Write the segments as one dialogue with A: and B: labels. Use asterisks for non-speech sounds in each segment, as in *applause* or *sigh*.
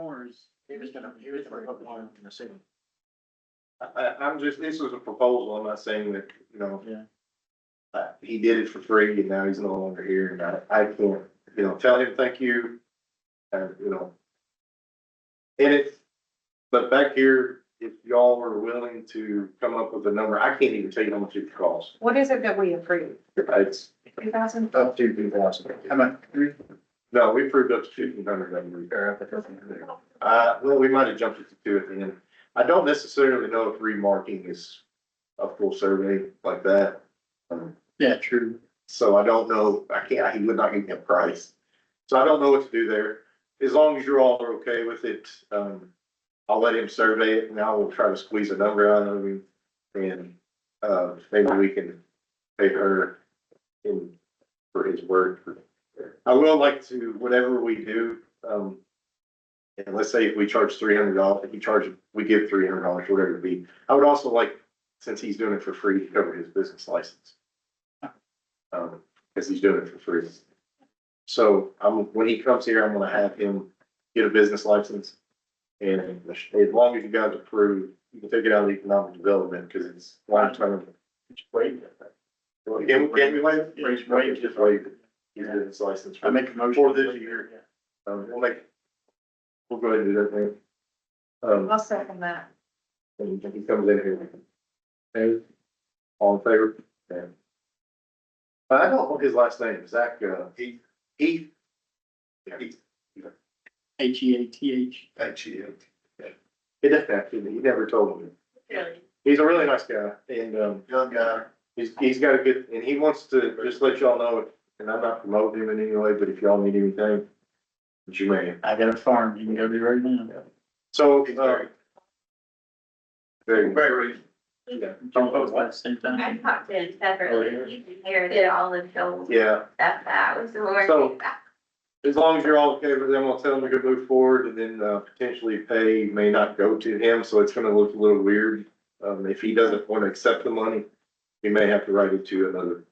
A: numbers, he was gonna, he was gonna put one in the city.
B: I, I'm just, this was a proposal, I'm not saying that, you know.
A: Yeah.
B: Uh, he did it for free and now he's no longer here and I, I can't, you know, tell him thank you, and, you know. And it's, but back here, if y'all were willing to come up with a number, I can't even tell you how much it costs.
C: What is it that we approved?
B: It's
C: Two thousand?
B: up to two thousand.
A: How about three?
B: No, we proved up to fifteen hundred, I believe.
A: Or up at the there.
B: Uh, well, we might have jumped it to two at the end. I don't necessarily know if remarking is a full survey like that. Um,
A: Yeah, true.
B: So I don't know, I can't, he would not give me a price. So I don't know what to do there. As long as you all are okay with it, um, I'll let him survey it and I will try to squeeze a number out of him. And, uh, maybe we can pay her in, for his work. I will like to, whatever we do, um, and let's say if we charge three hundred dollars, if we charge, we give three hundred dollars, whatever it be. I would also like, since he's doing it for free, to cover his business license. Um, cause he's doing it for free. So, um, when he comes here, I'm gonna have him get a business license. And as long as you guys approve, you can take it out of economic development, cause it's line term.
A: Wait.
B: Can we, can we waive? it?
A: Raise wages.
B: Just waive it. His business license.
A: I make a motion.
B: For this year. Um, we'll make, we'll go ahead and do that thing. Um,
C: I'll second that.
B: and he comes in here. Okay. All in favor? Yeah. I don't know his last name, Zach, uh, Heath. Heath.
A: H E A T H.
B: H E F. He doesn't have to, he never told me. He's a really nice guy and, um. Young guy. He's, he's got a good, and he wants to just let y'all know, and I'm not promoting him in any way, but if y'all need anything, you may.
A: I got a farm, you can go do right now.
B: So,
D: He's
B: uh.
D: very-
B: Very,
D: Very reasonable.
B: yeah.
A: Don't vote at the same
E: I
A: time.
E: talked to him
A: Oh,
E: separately, he inherited all of Joel's stuff,
B: yeah.
E: that was the worst.
B: So- As long as you're all okay with them, I'll tell them to go move forward and then uh, potentially pay may not go to him, so it's gonna look a little weird. Um, if he doesn't wanna accept the money, he may have to write it to another.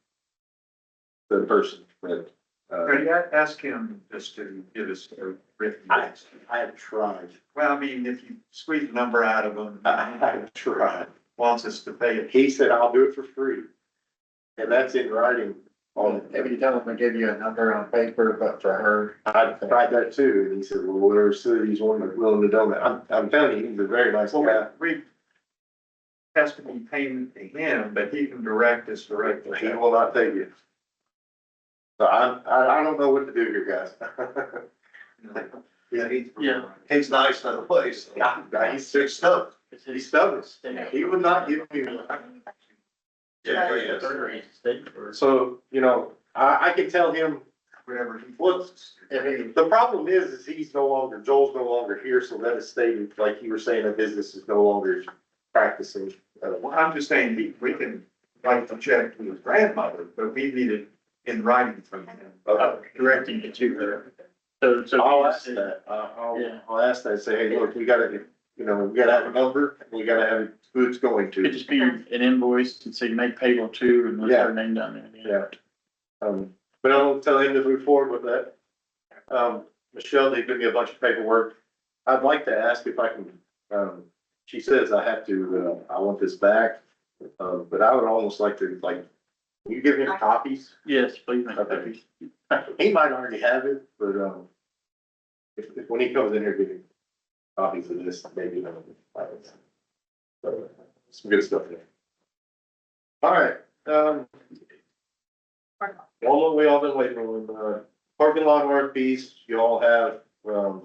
B: The person, but, uh,
D: Could I ask him just to give us a written
B: I-
D: list?
B: I have tried, *laughs*
D: Well, I mean, if you squeeze the number out of him,
B: I have tried.
D: wants us to pay it.
B: He said, I'll do it for free. And that's in writing on,
A: you tell them to give you a number on paper, but for her.
B: I tried that too, and he said, well, whatever city's willing, willing to donate. I'm, I'm telling you, he's a very nice guy.
D: Well, we, we has to be paying to him, but he can direct us directly.
B: He will not take it. So I, I, I don't know what to do here, guys. *laughs*
D: Yeah, he's.
A: Yeah.
D: He's nice in the place.
B: Yeah, he's six stuff. He's stubborn. He would not give me.
D: Yeah, oh, he is.
B: So, you know, I, I can tell him,
D: Whatever he
B: What's-
D: wants.
B: the problem is, is he's no longer, Joel's no longer here, so that is stated, like you were saying, the business is no longer practicing. Uh,
D: Well, I'm just saying, we, we can write the check to his grandmother, but we need it in writing from him.
B: Okay.
A: Oh, Directing it to her. So, so.
B: I'll ask that, uh, I'll,
A: Yeah.
B: I'll ask that, say, hey, look, we gotta, you know, we gotta have a number, and we gotta have who it's going
A: Could
B: to.
A: just be an invoice and say make payable to and list her name down there.
B: Yeah. Um, but I'll tell him to move forward with that. Um, Michelle, they give me a bunch of paperwork. I'd like to ask if I can, um, she says I have to, uh, I want this back. Uh, but I would almost like to, like, will you give him copies?
A: Yes, please make
B: Okay.
A: copies.
B: He might already have it, but, um, if, if, when he comes in here, give him copies of this, maybe. um, like, so, Some good stuff there. All right, um, All we all been waiting on, uh, parking lot RFPs, you all have, um,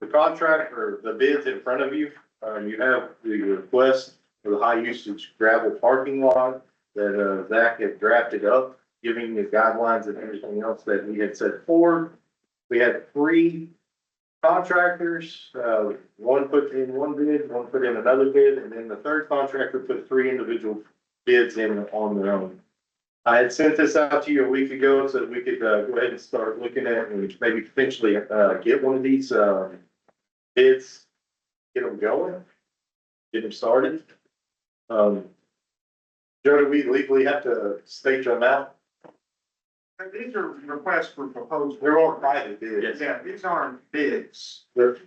B: the contract or the bids in front of you. Uh, you have the request for the high usage gravel parking lot that, uh, Zach had drafted up, giving the guidelines and everything else that we had set forward. We had three contractors, uh, one put in one bid, one put in another bid, and then the third contractor put three individual bids in on their own. I had sent this out to you a week ago so that we could, uh, go ahead and start looking at and maybe potentially, uh, get one of these, um, bids, get them going, get them started. Um, Joe, do we legally have to state your amount?
D: And These are requests for proposals.
B: They're all private bids.
D: Yeah, these aren't bids.
B: They're-